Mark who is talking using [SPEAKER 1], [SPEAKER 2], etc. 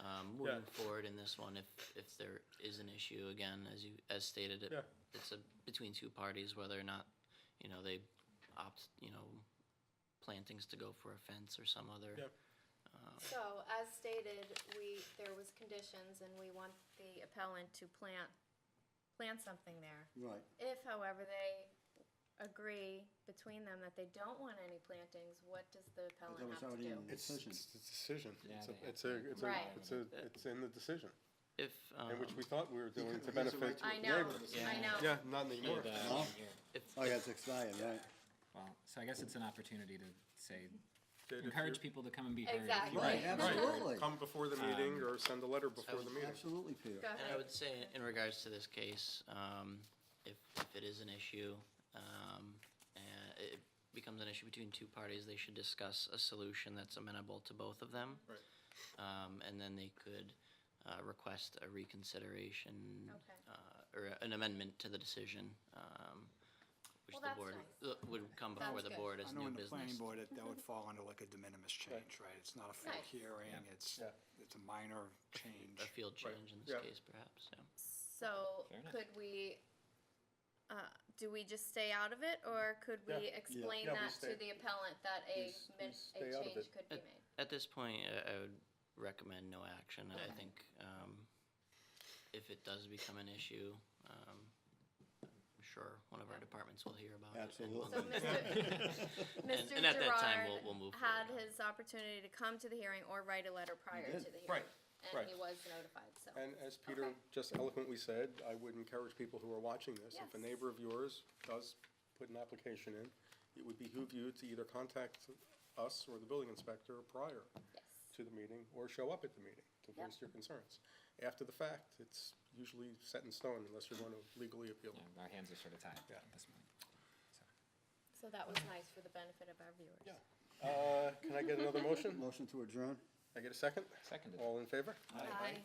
[SPEAKER 1] plug um, forward in this one if, if there is an issue again, as you, as stated. it-
[SPEAKER 2] Yeah.
[SPEAKER 1] It's a, between two parties, whether or not, you know, they opt, you know, plantings to go for a fence or some other.
[SPEAKER 2] Yep.
[SPEAKER 3] So as stated, we, there was conditions and we want the appellant to plant, plant something there.
[SPEAKER 4] Right.
[SPEAKER 3] If however they agree between them that they don't want any plantings, what does the
[SPEAKER 4] That
[SPEAKER 3] appellant
[SPEAKER 4] was
[SPEAKER 3] have to
[SPEAKER 4] already in
[SPEAKER 3] do?
[SPEAKER 4] the
[SPEAKER 2] It's,
[SPEAKER 4] decision.
[SPEAKER 2] it's the decision. It's
[SPEAKER 5] Yeah, they
[SPEAKER 2] a,
[SPEAKER 5] have
[SPEAKER 2] it's a,
[SPEAKER 5] to.
[SPEAKER 2] it's a,
[SPEAKER 3] Right.
[SPEAKER 2] it's a, it's in the decision,
[SPEAKER 1] If,
[SPEAKER 2] and which
[SPEAKER 1] um,
[SPEAKER 2] we thought we were doing to
[SPEAKER 4] could- he has a
[SPEAKER 2] benefit
[SPEAKER 4] right to-
[SPEAKER 3] I know,
[SPEAKER 4] neighbors.
[SPEAKER 3] I
[SPEAKER 5] Yeah.
[SPEAKER 3] know.
[SPEAKER 2] Yeah, not anymore.
[SPEAKER 5] And,
[SPEAKER 2] Well,
[SPEAKER 5] uh,
[SPEAKER 4] Huh?
[SPEAKER 5] here.
[SPEAKER 1] if,
[SPEAKER 4] Oh, yeah, it's expired, right?
[SPEAKER 5] Well, so I guess it's an opportunity to say,
[SPEAKER 2] That if
[SPEAKER 5] encourage
[SPEAKER 2] you're-
[SPEAKER 5] people to Um, come and be heard. if you
[SPEAKER 3] Exactly.
[SPEAKER 5] want.
[SPEAKER 4] Right, absolutely.
[SPEAKER 2] Come before the meeting or send a letter before the meeting.
[SPEAKER 4] Absolutely,
[SPEAKER 3] Go
[SPEAKER 4] Peter.
[SPEAKER 1] and I
[SPEAKER 3] ahead.
[SPEAKER 1] would say in regards to this case, um, if, if it is an issue, um, and it becomes an issue between two parties, they should discuss a solution that's amenable to both of them.
[SPEAKER 2] Right.
[SPEAKER 1] Um, and then they could, uh, request a reconsideration.
[SPEAKER 3] Okay.
[SPEAKER 1] Uh, or an amendment to the decision, um, which
[SPEAKER 3] Well,
[SPEAKER 1] the
[SPEAKER 3] that's
[SPEAKER 1] board
[SPEAKER 3] nice.
[SPEAKER 1] uh, would come before
[SPEAKER 3] Sounds
[SPEAKER 1] the
[SPEAKER 3] good.
[SPEAKER 1] board
[SPEAKER 6] I
[SPEAKER 1] as
[SPEAKER 6] know
[SPEAKER 1] new
[SPEAKER 6] in the planning
[SPEAKER 1] business.
[SPEAKER 6] board, that, that would fall under like a de minimis change, right? It's not a full
[SPEAKER 3] Nice.
[SPEAKER 6] hearing, it's, it's a minor
[SPEAKER 1] A
[SPEAKER 6] change.
[SPEAKER 1] field
[SPEAKER 2] Right,
[SPEAKER 1] change in this
[SPEAKER 2] yeah.
[SPEAKER 1] case perhaps, yeah.
[SPEAKER 3] So
[SPEAKER 5] Fair enough.
[SPEAKER 3] could we, uh, do we just stay out of it or could we
[SPEAKER 2] Yeah. Yeah.
[SPEAKER 3] explain
[SPEAKER 2] Yeah, we
[SPEAKER 3] that
[SPEAKER 2] stay-
[SPEAKER 3] to the appellant that a,
[SPEAKER 2] s- we
[SPEAKER 3] min-
[SPEAKER 2] stay
[SPEAKER 3] a
[SPEAKER 2] out of
[SPEAKER 3] change
[SPEAKER 2] it.
[SPEAKER 3] could be
[SPEAKER 1] At,
[SPEAKER 3] made?
[SPEAKER 1] at this point, I, I would recommend no action. I think um, if it does become an issue, um, I'm sure one of our departments will hear about it.
[SPEAKER 3] So
[SPEAKER 1] and we'll-
[SPEAKER 4] Absolutely.
[SPEAKER 3] Mr.
[SPEAKER 1] And-
[SPEAKER 3] Mr.
[SPEAKER 1] and at that time, we'll- we'll move
[SPEAKER 3] Gerard had
[SPEAKER 1] forward.
[SPEAKER 3] his opportunity to come to the hearing or write a letter prior to
[SPEAKER 4] did.
[SPEAKER 3] the hearing.
[SPEAKER 2] Right, right.
[SPEAKER 3] And he was notified, so.
[SPEAKER 2] And as Peter
[SPEAKER 3] Okay.
[SPEAKER 2] just eloquently said, I would encourage people who are watching this, if a
[SPEAKER 3] Yes.
[SPEAKER 2] neighbor of yours does put an application in, it would behoove you to either contact us or the building inspector prior
[SPEAKER 3] Yes,
[SPEAKER 2] to the meeting, or show up at the meeting to voice
[SPEAKER 3] Yep.
[SPEAKER 2] your concerns. After the fact, it's usually set in stone unless you're going to legally appeal.
[SPEAKER 5] Yeah, Our hands are sort of tied
[SPEAKER 2] Yeah.
[SPEAKER 5] at this point. So,
[SPEAKER 3] so that was nice for the benefit of our viewers.
[SPEAKER 2] Yeah. Uh, Can I get another motion?
[SPEAKER 4] Motion to adjourn?
[SPEAKER 2] I get a second?
[SPEAKER 5] Seconded.
[SPEAKER 2] All in favor?
[SPEAKER 3] Aye.